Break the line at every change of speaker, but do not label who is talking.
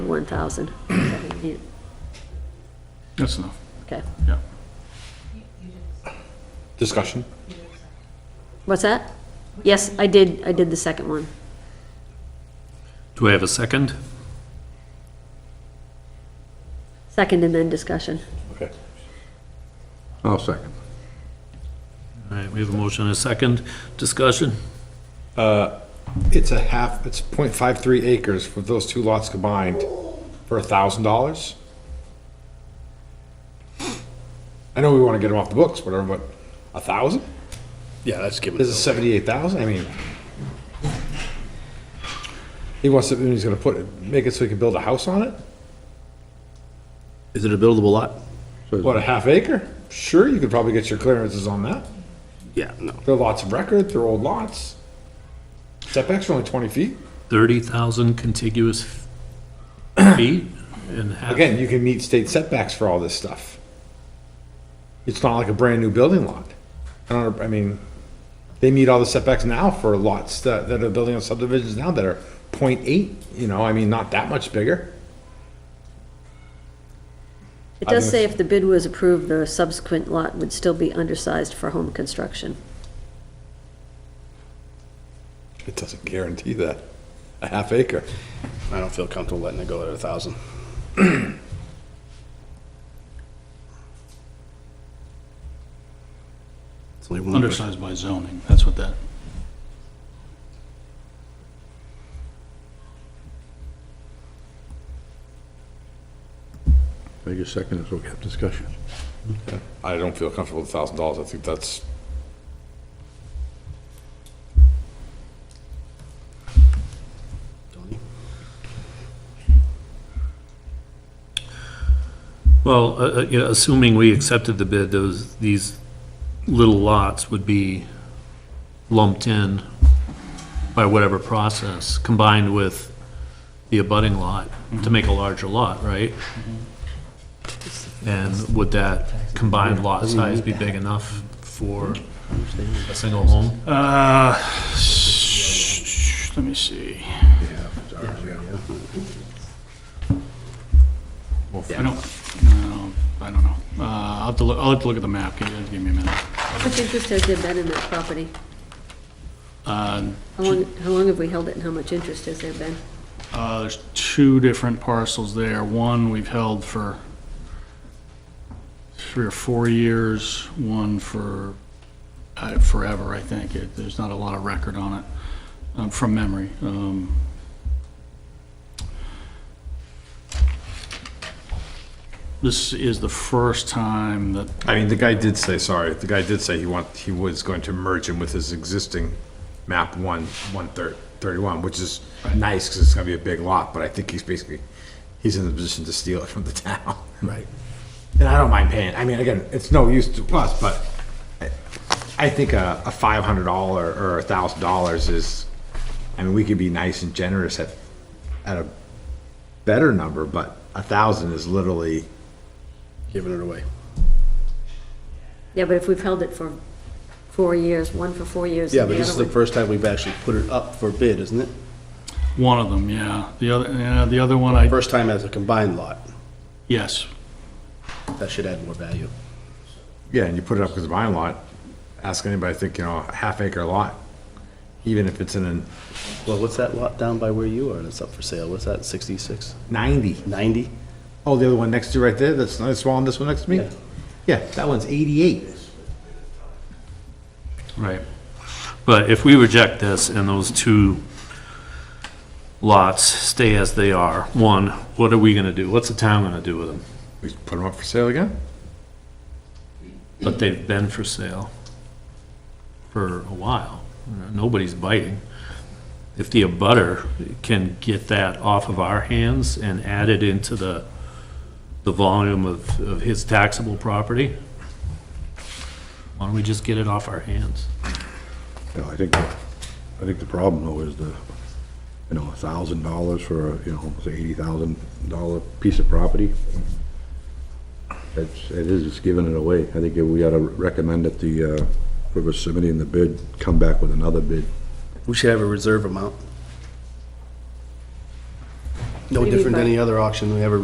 one thousand.
That's enough,
Okay,
yeah.
Discussion?
what's that? Yes, I did, I did the second one.
Do I have a second?
Second and then discussion.
Okay.
I'll second.
All right, we have a motion and a second. Discussion?
It's a half, it's .53 acres for those two lots combined for a thousand dollars. I know we want to get them off the books, whatever, but a thousand?
Yeah, that's given.
This is seventy-eight thousand, I mean. He wants to, he's gonna put, it- make it so he can build a house on it?
Is it a buildable lot?
What, a half acre? Sure, you could probably get your clearances on that.
Yeah, no.
They're lots of record, they're old lots. Setbacks are only twenty feet.
30,000 contiguous feet and half.
Again, you can meet state setbacks for all this stuff. It's not like a brand-new building lot. I don't, I mean, they meet all the setbacks now for lots that, that are building on subdivisions now that are .8, you know, I mean, not that much bigger.
It does say if the bid was approved, the subsequent lot would still be undersized for home construction.
It doesn't guarantee that, a half acre.
I don't feel comfortable letting it go at a thousand. It's only one. person.
Undersized by zoning, that's what that,
I guess second is we have discussion.
I don't feel comfortable with a thousand dollars, I think that's,
Well, uh, uh, yeah, assuming we accepted the bid, those, these little lots would be lumped in by whatever process, combined with the abutting lot to make a larger lot, right? And would that combined lot size be big enough for a single home?
uh, let me see. I don't, no, I don't know. Uh, I'll have to, look- I'll have to look at the map, give give me a minute.
How much interest has there been in that property?
Uh,
Um,
How long, how long have we held it and how much interest has there been?
Uh, There's two different parcels there. One we've held for three or four years, one for uh, forever, I think. It- There's not a lot of record on it, um, from memory. Um, This is the first time that,
I mean, the guy did say, sorry, the guy did say he want, he was going to merge him with his existing map one, one thir- thirty-one, which is nice, cause it's gonna be a big lot, but I think he's basically, he's in the position to steal it from the town. Right. And I don't mind paying, I mean, again, it's no use to us, but I, I think a, a five hundred dollar or a thousand dollars is, I mean, we could be nice and generous at, at a better number, but a thousand is literally.
Giving it away.
Yeah, but if we've held it for four years, one for four years
Yeah,
and
but
the
this is
other
the
one.
first time we've actually put it up for bid, isn't it?
one of them, yeah. The other, yeah, the other one, I,
First time as a combined lot.
yes.
That should add more value.
Yeah, and you put it up because of my lot, ask anybody, I think, you know, a half acre lot, even if it's in a
Well, what's that lot down by where you are that's up for sale? What's that, 66,
ninety.
90?
Oh, the other one next to you right there, that's not smaller than this one next to me?
Yeah.
Yeah, that one's eighty-eight.
Right. But if we reject this and those two lots stay as they are, one, what are we gonna do? What's the town gonna do with them?
We put them up for sale again?
But they've been for sale for a while. Nobody's biting. If the abutter can get that off of our hands and add it into the, the volume of, of his taxable property, why don't we just get it off our hands?
You know, I think, I think the problem though is the, you know, a thousand dollars for, a, you know, say eighty thousand dollar piece of property. It's, it is, it's giving it away. I think we ought to recommend that the, uh, whoever's submitting the bid, come back with another bid.
We should have a reserve amount. No
What do you mean
different than
by-
any other auction we ever